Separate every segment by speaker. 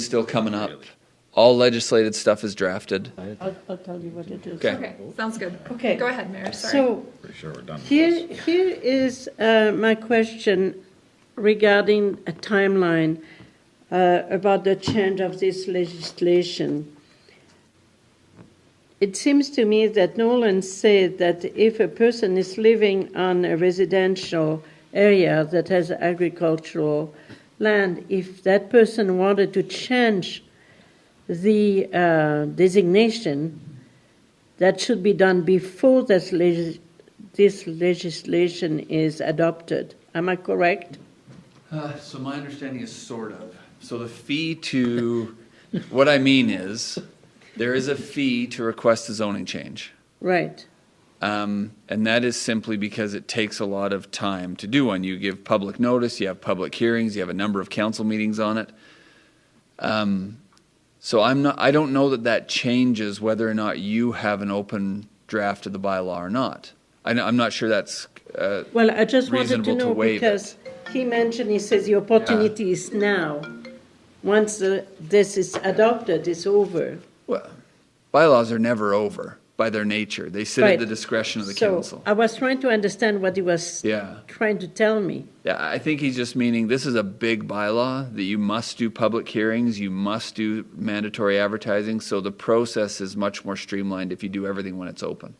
Speaker 1: still coming up. All legislated stuff is drafted.
Speaker 2: I'll, I'll tell you what it is.
Speaker 1: Okay.
Speaker 3: Okay, sounds good.
Speaker 2: Okay.
Speaker 3: Go ahead, Mayor, sorry.
Speaker 2: So
Speaker 4: Pretty sure we're done. with this.
Speaker 2: here, here is uh, my question regarding a timeline uh, about the change of this legislation. It seems to me that Nolan said that if a person is living on a residential area that has agricultural land, if that person wanted to change the uh, designation, that should be done before this, legis- this legislation is adopted. Am I correct?
Speaker 1: Uh, so my understanding is sort of. So the fee to, what I mean is, there is a fee to request a zoning change.
Speaker 2: Right.
Speaker 1: Um, and that is simply because it takes a lot of time to do one. You give public notice, you have public hearings, you have a number of council meetings on it. Um, so I'm not, I don't know that that changes whether or not you have an open draft of the bylaw or not. I, know- I'm not sure that's, uh,
Speaker 2: Well, I just wanted to
Speaker 1: Reasonable to
Speaker 2: know
Speaker 1: waive it.
Speaker 2: because he mentioned, he says the opportunity is now. Once the, this is adopted, it's over.
Speaker 1: well, bylaws are never over by their nature. They sit
Speaker 2: Right.
Speaker 1: at the discretion of the
Speaker 2: So
Speaker 1: council.
Speaker 2: I was trying to understand what he was
Speaker 1: Yeah.
Speaker 2: trying to tell me.
Speaker 1: Yeah, I think he's just meaning this is a big bylaw that you must do public hearings, you must do mandatory advertising, so the process is much more streamlined if you do everything when it's open.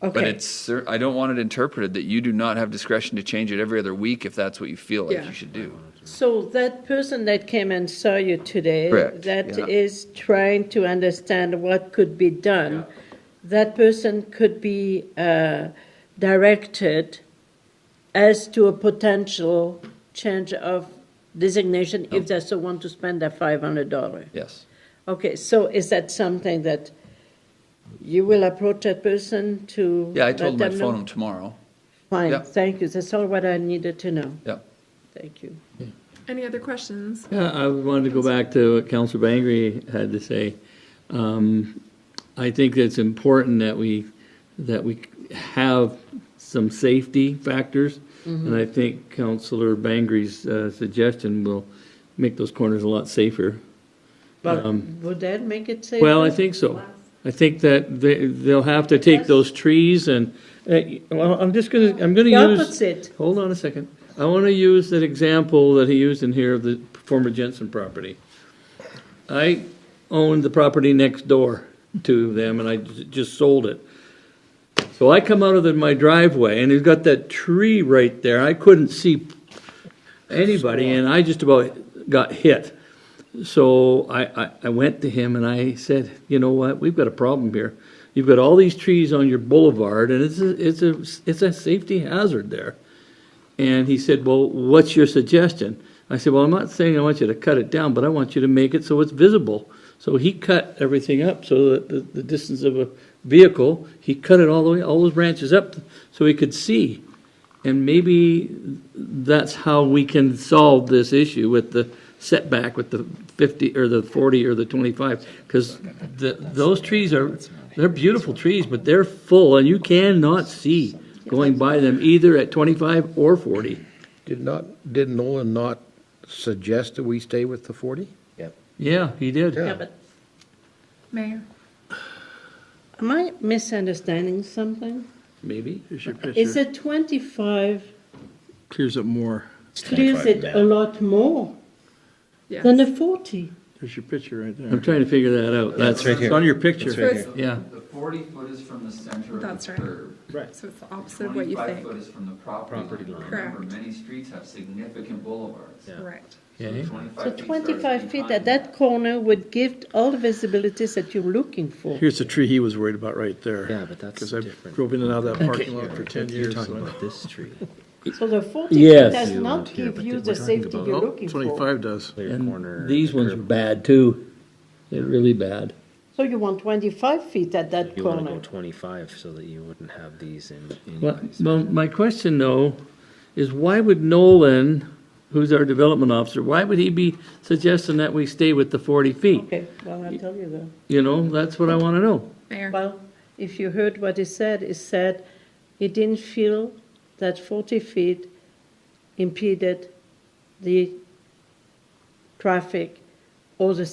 Speaker 1: But
Speaker 2: Okay,
Speaker 1: it's cer- I don't want it interpreted that you do not have discretion to change it every other week if that's what you feel like
Speaker 3: Yeah.
Speaker 1: you should do.
Speaker 2: so that person that came and saw you today,
Speaker 1: Correct,
Speaker 2: that
Speaker 1: yeah.
Speaker 2: is trying to understand what could be done. That person could be uh, directed as to a potential change of designation
Speaker 1: Oh.
Speaker 2: if they so want to spend that five hundred dollar.
Speaker 1: Yes.
Speaker 2: Okay, so is that something that you will approach that person to?
Speaker 1: Yeah, I told him
Speaker 2: let
Speaker 1: I'd
Speaker 2: them
Speaker 1: phone
Speaker 2: know?
Speaker 1: him tomorrow. Yeah.
Speaker 2: Fine, thank you, that's all what I needed to know,
Speaker 1: Yeah.
Speaker 2: thank you.
Speaker 3: Any other questions?
Speaker 5: Yeah, I wanted to go back to what Councilor Bangry had to say. Um, I think it's important that we, that we have some safety factors. And I think Councilor Bangry's uh, suggestion will make those corners a lot safer.
Speaker 2: But would that make it safer?
Speaker 5: Um, Well, I think so. I think that they, they'll have to take those trees and, uh, well, I'm just gonna, I'm gonna
Speaker 2: The
Speaker 5: use.
Speaker 2: opposite,
Speaker 5: Hold on a second. I want to use that example that he used in here of the former Jensen property. I owned the property next door to them and I j- just sold it. So I come out of the- my driveway and he's got that tree right there. I couldn't see anybody and I just about got hit. So I, I, I went to him and I said, you know what, we've got a problem here. You've got all these trees on your boulevard and it's a, it's a, it's a safety hazard there. And he said, Well, what's your suggestion? I said, Well, I'm not saying I want you to cut it down, but I want you to make it so it's visible. So he cut everything up so that the, the distance of a vehicle, he cut it all the way, all those branches up so he could see. And maybe that's how we can solve this issue with the setback with the 50 or the 40 or the 25 because the, those trees are they're beautiful trees but they're full and you cannot see going by them either at 25 or 40
Speaker 6: Did not, did Nolan not suggest that we stay with the 40?
Speaker 5: yeah he did
Speaker 2: yeah, but
Speaker 3: Mayor?
Speaker 2: am I misunderstanding something?
Speaker 5: maybe
Speaker 2: Is it twenty-five
Speaker 7: Clears up more.
Speaker 4: It's
Speaker 2: clears
Speaker 4: 25
Speaker 2: it
Speaker 4: now.
Speaker 2: a lot more
Speaker 3: Yes.
Speaker 2: than the forty?
Speaker 7: There's your picture right
Speaker 5: i'm
Speaker 7: there.
Speaker 5: trying to figure that out that's
Speaker 4: right here.
Speaker 5: it's on your picture
Speaker 3: So it's,
Speaker 5: yeah
Speaker 1: The forty foot is from the center
Speaker 3: of the That's right. curb. so it's the opposite of what you think.
Speaker 1: is from the property line.
Speaker 3: Correct. Remember,
Speaker 1: many streets have significant boulevards.
Speaker 3: Correct.
Speaker 5: okay.
Speaker 2: So twenty-five feet at that corner would give all the visibilities that you're looking for.
Speaker 7: Here's the tree he was worried about right there.
Speaker 8: Yeah, but that's
Speaker 7: Because I
Speaker 8: different.
Speaker 7: drove in and out of that parking lot for 10
Speaker 8: You're
Speaker 7: years.
Speaker 8: talking
Speaker 7: so I-
Speaker 8: about this tree,
Speaker 2: So the forty feet
Speaker 5: Yes.
Speaker 2: does
Speaker 8: You
Speaker 2: not
Speaker 8: up here,
Speaker 2: give
Speaker 8: but
Speaker 2: you
Speaker 8: we're
Speaker 2: the
Speaker 8: talking
Speaker 2: safety
Speaker 8: about-
Speaker 2: you're
Speaker 7: Oh,
Speaker 2: looking for.
Speaker 7: 25 does.
Speaker 8: clear corner.
Speaker 5: and these ones are bad too they're really bad
Speaker 2: So you want twenty-five feet at that
Speaker 8: You want to go
Speaker 2: corner.
Speaker 8: 25 so that you wouldn't have these in
Speaker 5: Well,
Speaker 8: anyways.
Speaker 5: well, my question though is why would Nolan, who's our development officer, why would he be suggesting that we stay with the forty feet?
Speaker 2: Okay, well, I'll tell you that.
Speaker 5: You know, that's what I want to know.
Speaker 3: Mayor?
Speaker 2: Well, if you heard what he said, he said he didn't feel that 40 feet impeded the traffic all the